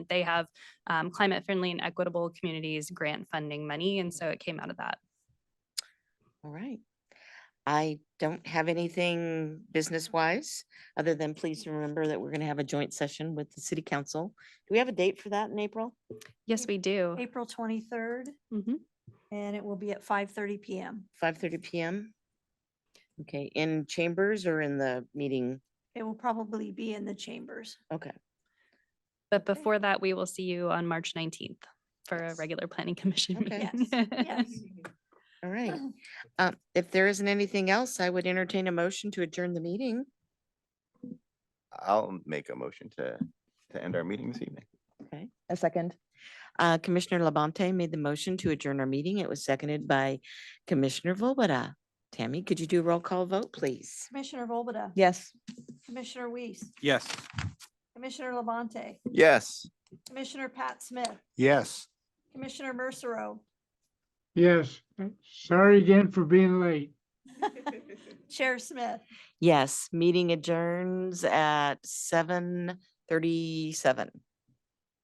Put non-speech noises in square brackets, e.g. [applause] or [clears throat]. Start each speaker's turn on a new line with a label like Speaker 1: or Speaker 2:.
Speaker 1: They have um, climate friendly and equitable communities grant funding money. And so it came out of that.
Speaker 2: All right. I don't have anything business-wise, other than please remember that we're going to have a joint session with the city council. Do we have a date for that in April?
Speaker 1: Yes, we do.
Speaker 3: April twenty-third,
Speaker 1: Mhm.
Speaker 3: and it will be at five thirty PM.
Speaker 2: Five thirty PM? Okay, in chambers or in the meeting?
Speaker 3: It will probably be in the chambers.
Speaker 2: Okay,
Speaker 1: But before that, we will see you on March 19th for a
Speaker 2: Yes.
Speaker 1: regular planning [laughs] commission
Speaker 2: Okay.
Speaker 1: meeting. [clears throat]
Speaker 3: Yes.
Speaker 2: all
Speaker 3: [clears throat]
Speaker 2: right. Uh, If there isn't anything else, I would entertain a motion to adjourn the meeting.
Speaker 4: I'll make a motion to, to end our meeting this evening.
Speaker 5: A second.
Speaker 2: Uh, Commissioner Labonte made the motion to adjourn our meeting. It was seconded by Commissioner Volbada. Tammy, could you do a roll call vote, please?
Speaker 3: Commissioner Volbada.
Speaker 5: Yes.
Speaker 3: Commissioner Weiss.
Speaker 6: Yes.
Speaker 3: Commissioner Levante.
Speaker 4: Yes.
Speaker 3: Commissioner Pat Smith.
Speaker 6: Yes.
Speaker 3: Commissioner Mercero. [laughs]
Speaker 7: Yes, uh, sorry again for being late.
Speaker 3: Chair Smith.
Speaker 2: Yes, meeting adjourns at seven thirty-seven.